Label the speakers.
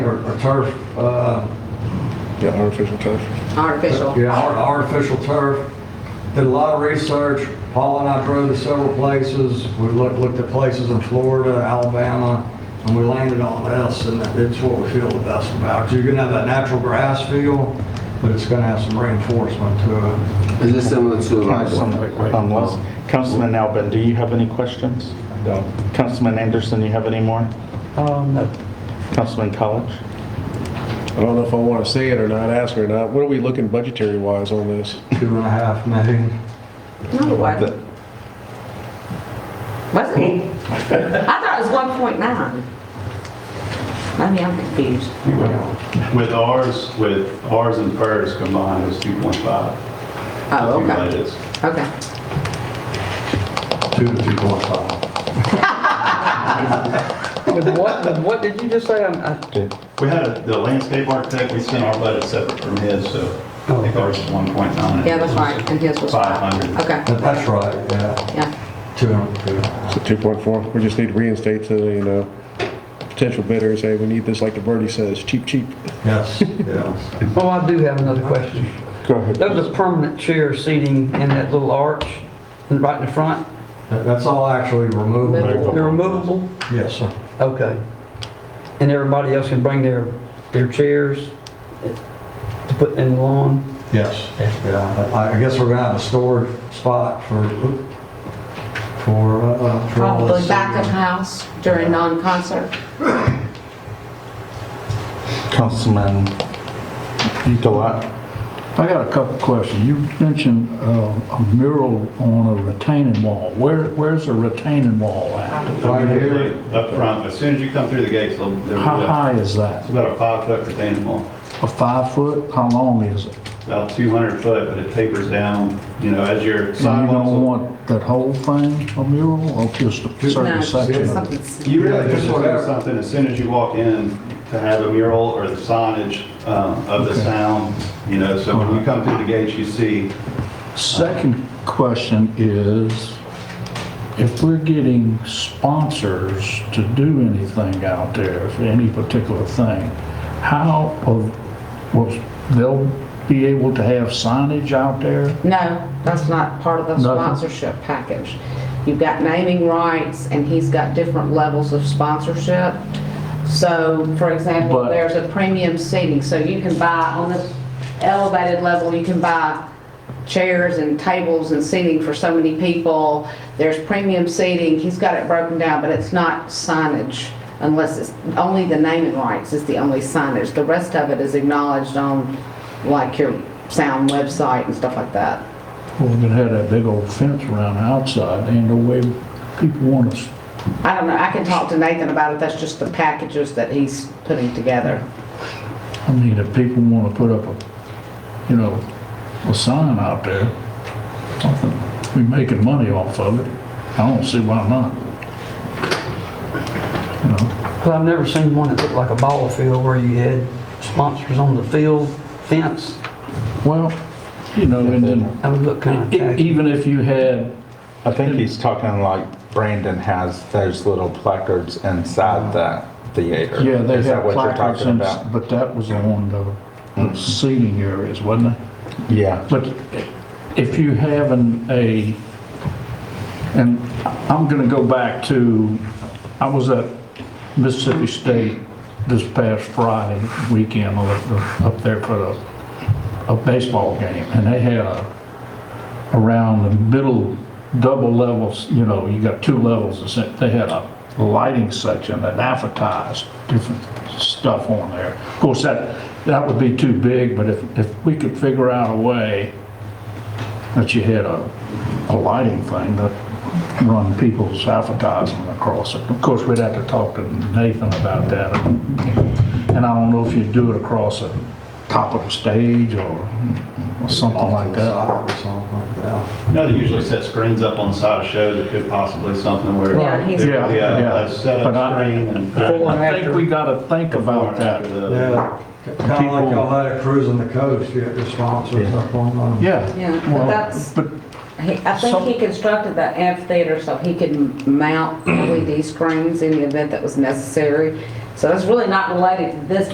Speaker 1: or or turf, uh,
Speaker 2: Yeah, artificial turf.
Speaker 3: Artificial.
Speaker 1: yeah, ar- artificial turf. Did a lot of research. Paul and I drove to several places. We looked, looked at places in Florida, Alabama, and we landed on this, and it's what we feel the best about. You're gonna have that natural grass feel, but it's gonna have some reinforcement to it.
Speaker 4: Is this similar to like,
Speaker 5: Councilman um, let's- Councilman Albin, do you have any questions?
Speaker 2: No.
Speaker 5: Councilman Anderson, you have any more?
Speaker 6: Um,
Speaker 5: Councilman College?
Speaker 2: I don't know if I want to say it or not, ask her or not. What are we looking budgetary wise on this?
Speaker 1: Two and a half million.
Speaker 3: No, it wasn't. Wasn't it? I thought it was one point nine. I mean, I'm confused.
Speaker 7: With ours, with ours and hers combined, it was 2.5.
Speaker 3: Oh, okay,
Speaker 7: Accumulated.
Speaker 3: okay.
Speaker 1: Two to two point five.
Speaker 8: With what, with what did you just say? I'm- I-
Speaker 7: We had a- the landscape architect, we sent our budget separate from his, so I think ours is 1.9.
Speaker 3: Yeah, that's right, and his was.
Speaker 7: 500.
Speaker 3: Okay,
Speaker 1: But that's right, yeah.
Speaker 3: yeah,
Speaker 1: Two and two.
Speaker 2: So 2.4, we just need to reinstate to the, you know, potential bidder and say, we need this, like the birdie says, cheap, cheap.
Speaker 1: Yes, yes.
Speaker 8: Oh, I do have another question.
Speaker 5: Go ahead.
Speaker 8: Those are permanent chair seating in that little arch and right in the front.
Speaker 1: That- That's all actually removable.
Speaker 8: They're removable?
Speaker 1: Yes, sir.
Speaker 8: Okay. And everybody else can bring their, their chairs to put in the lawn?
Speaker 1: Yes, yeah, I I guess we're gonna have a storage spot for, for, uh, uh, for all
Speaker 3: probably
Speaker 1: this. uh,
Speaker 3: back of house during non-concert.
Speaker 5: Councilman Gilat?
Speaker 6: I got a couple questions. You mentioned uh, a mural on a retaining wall. Where, where's the retaining wall at?
Speaker 1: Right here,
Speaker 7: Up front, as soon as you come through the gates, they'll- they'll-
Speaker 6: How
Speaker 7: it's
Speaker 6: high is that?
Speaker 7: about a five-foot retaining wall,
Speaker 6: A five foot? How long is it?
Speaker 7: about 200 foot, but it tapers down, you know, as your
Speaker 6: So you don't
Speaker 7: sidewalks.
Speaker 6: want that whole thing a mural or just a
Speaker 3: No,
Speaker 6: certain
Speaker 3: it's
Speaker 6: section of it?
Speaker 3: something s-
Speaker 7: You
Speaker 1: Yeah,
Speaker 7: really
Speaker 1: just
Speaker 7: just
Speaker 1: whatever.
Speaker 7: want something, as soon as you walk in, to have a mural or the signage um, of the sound, you know, so when
Speaker 6: Uh-huh.
Speaker 7: you come through the gates, you see
Speaker 6: Second question is, if we're getting sponsors to do anything out there for any particular thing, how, of- will, they'll be able to have signage out there?
Speaker 3: No, that's not part of the
Speaker 6: Nothing.
Speaker 3: sponsorship package. You've got naming rights, and he's got different levels of sponsorship. So, for example,
Speaker 6: But-
Speaker 3: there's a premium seating, so you can buy, on the elevated level, you can buy chairs and tables and seating for so many people. There's premium seating, he's got it broken down, but it's not signage, unless it's, only the naming rights is the only signage. The rest of it is acknowledged on, like, your sound website and stuff like that.
Speaker 6: Well, we're gonna have that big old fence around the outside, ain't no way people want us.
Speaker 3: I don't know, I can talk to Nathan about it, that's just the packages that he's putting together.
Speaker 6: I mean, if people wanna put up a, you know, a sign out there, something, we making money off of it, I don't see why not. You know?
Speaker 8: Because I've never seen one that looked like a ball field where you had sponsors on the field fence.
Speaker 6: Well, you know, and then,
Speaker 8: That would look kind of
Speaker 6: e-
Speaker 8: tacky.
Speaker 6: even if you had,
Speaker 5: I think he's talking like Brandon has those little placards inside the theater.
Speaker 6: yeah, they
Speaker 5: Is that
Speaker 6: had
Speaker 5: what you're
Speaker 6: placards,
Speaker 5: talking
Speaker 6: and-
Speaker 5: about?
Speaker 6: but that was on the seating areas, wasn't it?
Speaker 5: Yeah.
Speaker 6: But if you have an, a, and I'm gonna go back to, I was at Mississippi State this past Friday weekend, I was up there for a, a baseball game, and they had a, around the middle, double levels, you know, you got two levels, it's- they had a lighting section that advertised different stuff on there. Of course, that, that would be too big, but if, if we could figure out a way that you had a, a lighting thing that run people's advertising across it. Of course, we'd have to talk to Nathan about that. And I don't know if you'd do it across the top of the stage or or something like that.
Speaker 1: Or something like that.
Speaker 7: No, they usually set screens up on the side of shows, it could possibly something where.
Speaker 3: Yeah, he's-
Speaker 7: there could be a-
Speaker 6: Yeah, yeah.
Speaker 7: a setup
Speaker 6: But I-
Speaker 7: screen and.
Speaker 8: Before and
Speaker 6: I think
Speaker 8: after.
Speaker 6: we gotta think about that.
Speaker 1: Yeah, kinda like
Speaker 6: People-
Speaker 1: y'all had a cruise on the coast, you had your sponsors up on them.
Speaker 6: Yeah.
Speaker 3: Yeah, but
Speaker 6: well,
Speaker 3: that's-
Speaker 6: But
Speaker 3: He- I think he constructed the amphitheater so he could mount LED screens in the event that was necessary. So that's really not related to this